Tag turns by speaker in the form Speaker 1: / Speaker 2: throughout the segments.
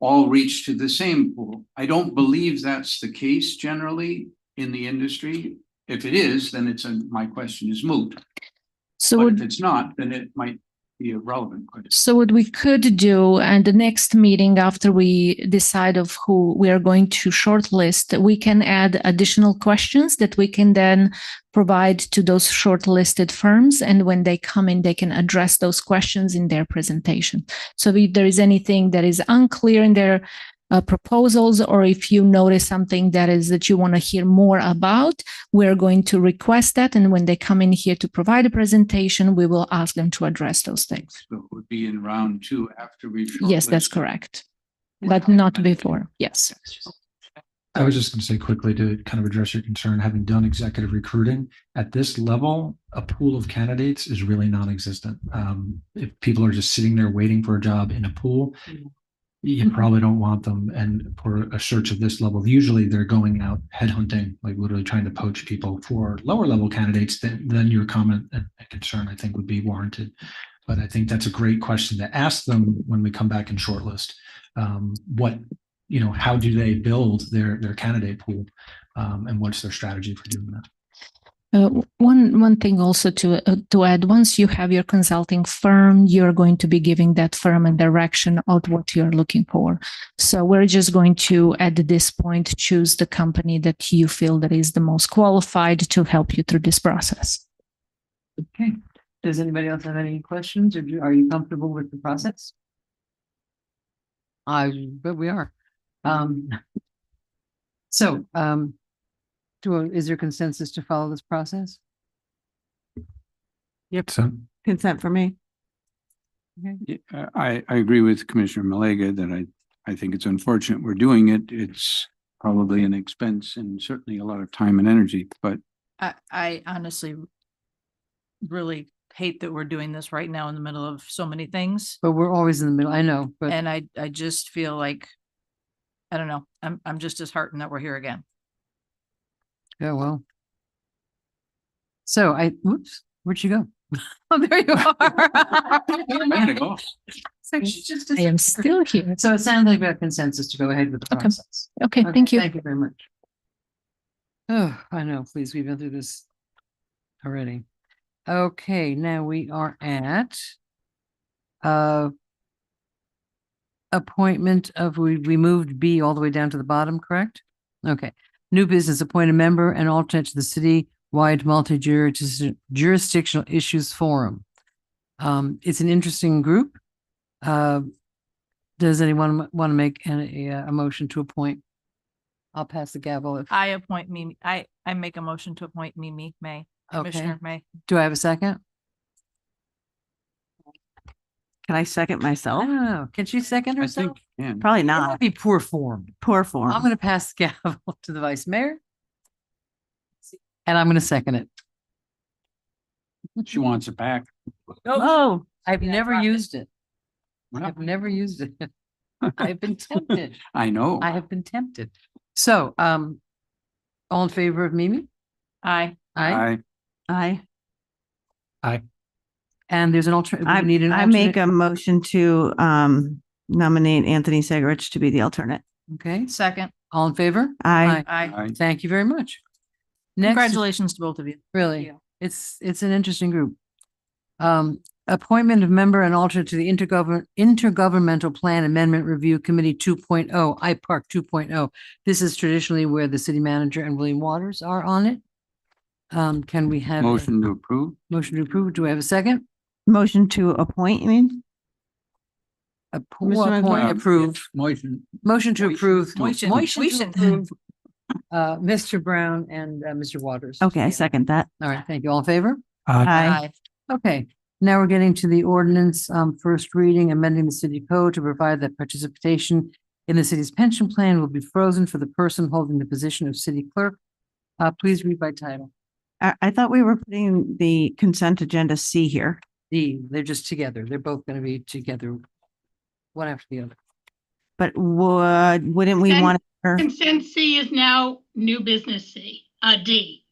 Speaker 1: all reach to the same pool. I don't believe that's the case generally in the industry. If it is, then it's, a- my question is moot.
Speaker 2: So
Speaker 1: But if
Speaker 2: would,
Speaker 1: it's not, then it might be a relevant question.
Speaker 2: so what we could do, and the next meeting after we decide of who we are going to shortlist, we can add additional questions that we can then provide to those shortlisted firms. And when they come in, they can address those questions in their presentation. So if there is anything that is unclear in their uh, proposals, or if you notice something that is that you want to hear more about, we're going to request that. And when they come in here to provide a presentation, we will ask them to address those things.
Speaker 1: So it would be in round two after we've.
Speaker 2: Yes, that's
Speaker 1: shortlisted.
Speaker 2: correct. But not before. Yes.
Speaker 3: I was just going to say quickly to kind of address your concern, having done executive recruiting at this level, a pool of candidates is really non-existent. Um, if people are just sitting there waiting for a job in a pool, you
Speaker 2: Mhm.
Speaker 3: probably don't want them. And for a search of this level, usually they're going out headhunting, like literally trying to poach people for lower level candidates. Then, then your comment and concern, I think, would be warranted. But I think that's a great question to ask them when we come back and shortlist. Um, what you know, how do they build their their candidate pool, um, and what's their strategy for doing that?
Speaker 2: Uh, w- One one thing also to uh, to add, once you have your consulting firm, you're going to be giving that firm a direction of what you're looking for. So we're just going to, at this point, choose the company that you feel that is the most qualified to help you through this process.
Speaker 4: Okay, does anybody else have any questions or do- are you comfortable with the process? I, but we are. Um. So, um. Do, is there consensus to follow this process?
Speaker 3: So
Speaker 5: Consent for me.
Speaker 1: Yeah, I, I agree with Commissioner Malega that I, I think it's unfortunate we're doing it. It's probably an expense and certainly a lot of time and energy, but
Speaker 6: I, I honestly really hate that we're doing this right now in the middle of so many things.
Speaker 4: But we're always in the middle, I know,
Speaker 2: Eh.
Speaker 4: but
Speaker 6: And I, I just feel like, I don't know, I'm, I'm just disheartened that we're here again.
Speaker 4: yeah, well. So I, whoops, where'd you go? Oh, there you
Speaker 1: I'm gonna
Speaker 4: are.
Speaker 1: go.
Speaker 4: So she's just-
Speaker 2: I am still here.
Speaker 4: So it sounds like we have consensus to go ahead with the
Speaker 2: Okay.
Speaker 4: process.
Speaker 2: Okay,
Speaker 4: Okay,
Speaker 2: thank you.
Speaker 4: Thank you very much. Oh, I know, please, we've been through this already. Okay, now we are at uh appointment of, we, we moved B all the way down to the bottom, correct? Okay, new business, appoint a member and alternate to the city-wide multi-jurisdictional jurisdictional issues forum. Um, it's an interesting group. Uh, does anyone want to make an, a, a motion to appoint? I'll pass the gavel if,
Speaker 6: I appoint Mimi, I, I make a motion to appoint Mimi May,
Speaker 4: okay.
Speaker 6: Commissioner May.
Speaker 4: Do I have a second?
Speaker 5: Can I second myself?
Speaker 4: Oh, can she second
Speaker 1: I
Speaker 4: herself?
Speaker 1: think, yeah.
Speaker 5: Probably
Speaker 4: That'd
Speaker 5: not.
Speaker 4: be poor form.
Speaker 5: Poor form.
Speaker 4: I'm going to pass the gavel to the vice mayor. And I'm going to second it.
Speaker 1: She wants it back.
Speaker 4: Oh, I've
Speaker 6: Yeah,
Speaker 4: never
Speaker 6: drop it.
Speaker 4: used it.
Speaker 1: Well,
Speaker 4: I've never used it. I've been tempted.
Speaker 1: I know.
Speaker 4: I have been tempted. So, um, all in favor of Mimi?
Speaker 6: I,
Speaker 4: Aye.
Speaker 1: I,
Speaker 5: I,
Speaker 4: And there's an alternate,
Speaker 5: I
Speaker 4: we need an
Speaker 5: I make
Speaker 4: alternate.
Speaker 5: a motion to um nominate Anthony Segarich to be the alternate.
Speaker 4: Okay,
Speaker 6: second,
Speaker 4: all in favor?
Speaker 5: I,
Speaker 6: I,
Speaker 1: I,
Speaker 4: Thank you very much. Next, is-
Speaker 6: congratulations to both of you.
Speaker 4: really,
Speaker 6: you.
Speaker 4: it's, it's an interesting group. Um, appointment of member and alternate to the intergovern, intergovernmental plan amendment review committee two IPARC two oh. This is traditionally where the city manager and William Waters are on it. Um, can we have? a
Speaker 1: motion to approve.
Speaker 4: Motion to approve. Do I have a second?
Speaker 5: motion to appoint, you mean?
Speaker 4: Appo-
Speaker 5: Mr.
Speaker 4: Appoint,
Speaker 1: McGuire.
Speaker 4: approve.
Speaker 1: Uh, Motion.
Speaker 4: Motion to
Speaker 1: Motion.
Speaker 4: approve.
Speaker 1: Motion.
Speaker 4: Motion to
Speaker 6: Motion.
Speaker 4: approve. Uh, Mr. Brown and, uh, Mr. Waters.
Speaker 5: Okay, I
Speaker 4: Yeah.
Speaker 5: second that.
Speaker 4: All right, thank you. All in favor?
Speaker 5: I,
Speaker 4: Okay, now we're getting to the ordinance, um, first reading, amending the city code to provide that participation in the city's pension plan will be frozen for the person holding the position of city clerk. Uh, please read by title.
Speaker 5: I, I thought we were putting the consent agenda C here.
Speaker 4: D, E, they're just together. They're both going to be together. One after the other.
Speaker 5: But would, wouldn't we
Speaker 7: Consent-
Speaker 5: want, or
Speaker 7: Consent C is now new business C, uh, D.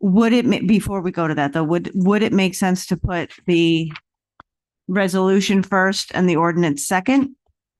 Speaker 5: would it, ma- before we go to that though, would, would it make sense to put the resolution first and the ordinance second?